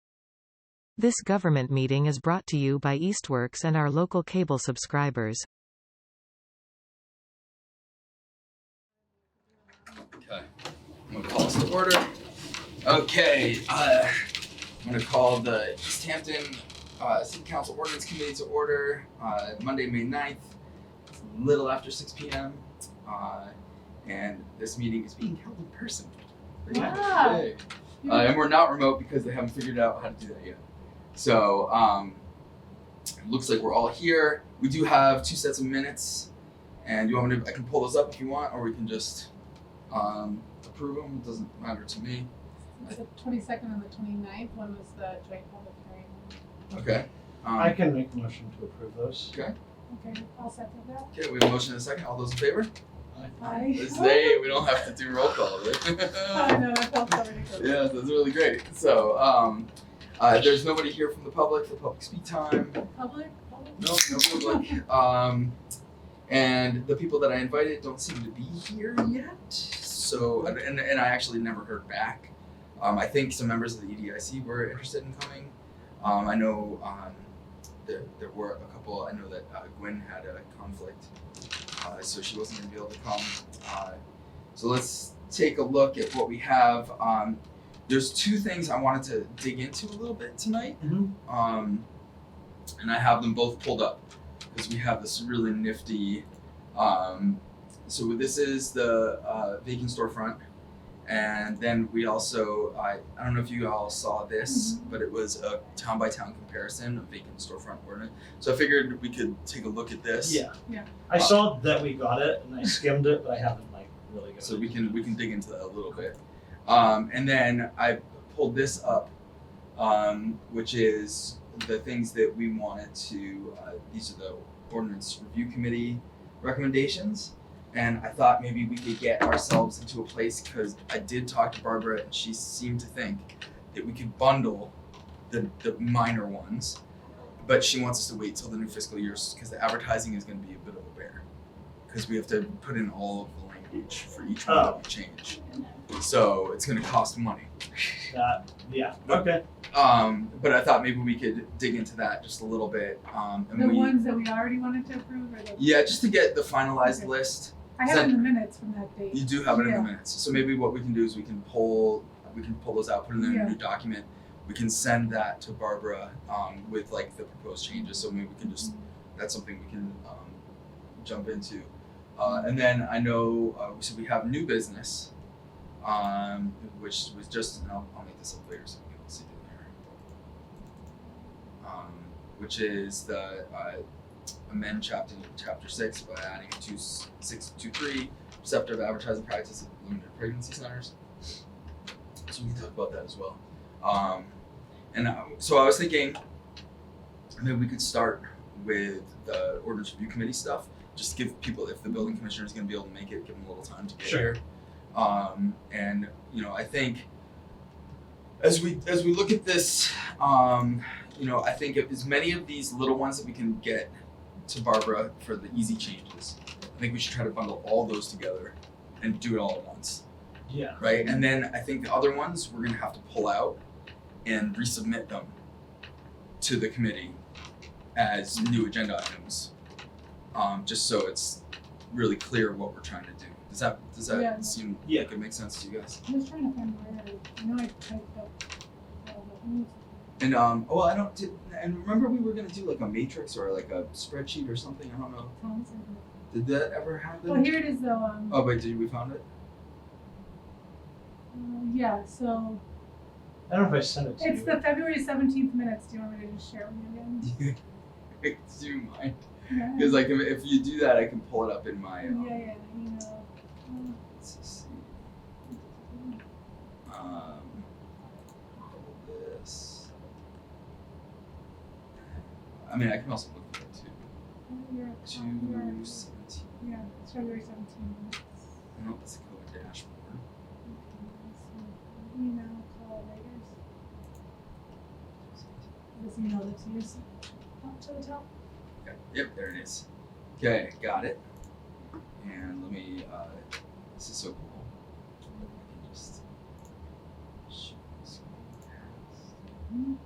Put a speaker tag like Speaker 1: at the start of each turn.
Speaker 1: This government meeting is brought to you by Eastworks and our local cable subscribers.
Speaker 2: Okay, I'm gonna call us to order. Okay, uh, I'm gonna call the East Hampton uh, City Council Ordinance Committee to order uh, Monday, May 9th, It's a little after 6 p.m. Uh, and this meeting is being held in person. Pretty much.
Speaker 3: Wow.
Speaker 2: Yay. Uh, and we're not remote because they haven't figured out how to do that yet. So um, it looks like we're all here. We do have two sets of minutes, and you want me to? I can pull those up if you want, or we can just um, approve them. It doesn't matter to me.
Speaker 3: It's the twenty-second and the 29th. one was the joint public hearing.
Speaker 2: Okay. Um,
Speaker 4: I can make a motion to approve those.
Speaker 3: Okay, I'll second that.
Speaker 2: Okay, we have a motion and a second. All those in favor?
Speaker 3: Aye.
Speaker 2: This day we don't have to do roll call,
Speaker 3: Oh,
Speaker 2: right?
Speaker 3: no, I felt so ridiculous.
Speaker 2: yeah, that's really great. So, um, uh, there's nobody here from the public for public speak time.
Speaker 3: Public, public?
Speaker 2: No, no public. Um, and the people that I invited don't seem to be here yet. So, and, and, and I actually never heard back. Um, I think some members of the EDIC were interested in coming. Um, I know um, there, there were a couple, I know that uh, Gwen had a conflict, uh, so she wasn't going to be able to come. Uh, so let's take a look at what we have. Um, there's two things I wanted to dig into a little bit tonight.
Speaker 4: Mhm.
Speaker 2: Um, and I have them both pulled up because we have this really nifty. Um, so this is the uh, vacant storefront, and then we also I I don't know if you all saw this, but it was a town by town comparison of vacant storefront ordinance. So I figured we could take a look at this.
Speaker 4: Yeah.
Speaker 3: Yeah.
Speaker 4: I saw that we got it and I skimmed it, but I haven't like really got
Speaker 2: So we can we can dig into that a little bit. Um, and then I pulled this up, um, which is the things that we wanted to. Uh, these are the ordinance review committee recommendations, and I thought maybe we could get ourselves into a place because I did talk to Barbara and she seemed to think that we could bundle the the minor ones, but she wants us to wait till the new fiscal year because the advertising is going to be a bit of a bear because we have to put in all of the language for each one that we change. So it's going to cost money.
Speaker 4: that. Yeah. Okay.
Speaker 2: Um, but I thought maybe we could dig into that just a little bit. Um, and
Speaker 3: The
Speaker 2: we,
Speaker 3: ones that we already wanted to approve or the?
Speaker 2: yeah, just to get the finalized
Speaker 3: Okay.
Speaker 2: list.
Speaker 3: I have in the minutes from that date.
Speaker 2: You do have it in
Speaker 3: Yeah.
Speaker 2: the minutes. So maybe what we can do is we can pull we can pull those out, put it in a
Speaker 3: Yeah.
Speaker 2: new document. We can send that to Barbara um, with like the proposed changes. So maybe we can just that's something we can um, jump into. Uh, and then I know uh, so we have new business, um, which was just and I'll, I'll make this up later so people can see it in there. Um, which is the uh, amend chapter chapter six by adding two s- six two three receptive advertising practice at limited pregnancy centers. So we can talk about that as well. Um, and uh, so I was thinking maybe we could start with the ordinance review committee stuff. Just give people, if the building commissioner is going to be able to make it, give them a little time to get
Speaker 4: Sure.
Speaker 2: here. Um, and you know, I think as we as we look at this, um, you know, I think if as many of these little ones that we can get to Barbara for the easy changes, I think we should try to bundle all those together and do it all at once,
Speaker 4: Yeah.
Speaker 2: right? And then I think the other ones we're gonna have to pull out and resubmit them to the committee as new agenda items, um, just so it's really clear what we're trying to do. Does that does that
Speaker 3: Yeah.
Speaker 2: seem
Speaker 4: Yeah.
Speaker 2: like it makes sense to you guys?
Speaker 3: I was trying to find where, I- I know I typed up. uh, all the things.
Speaker 2: And um, well, I don't. Did, and remember, we were gonna do like a matrix or like a spreadsheet or something. I don't know.
Speaker 3: Tom's in
Speaker 2: Did that ever
Speaker 3: the-
Speaker 2: happen?
Speaker 3: Well, here it is though, um,
Speaker 2: Oh, wait, did we found it?
Speaker 3: uh, yeah, so
Speaker 4: I don't know if I sent it to
Speaker 3: it's
Speaker 4: you.
Speaker 3: the February seventeenth minutes. Do you want me to just share with you again?
Speaker 2: do you mind?
Speaker 3: Yeah.
Speaker 2: Because like, if, if you do that, I can pull it up in my. Um,
Speaker 3: Yeah, yeah, you know. um,
Speaker 2: Let's see. Um, pull this. I mean, I can also look at it too.
Speaker 3: your- um,
Speaker 2: Two
Speaker 3: your-
Speaker 2: seventeen.
Speaker 3: Yeah, it's February seventeenth minutes.
Speaker 2: No, that's a code dashboard.
Speaker 3: Email collaborators. This email that's used up to the top.
Speaker 2: Okay. Yep, there it is. Okay, got it. And let me. Uh, this is so cool.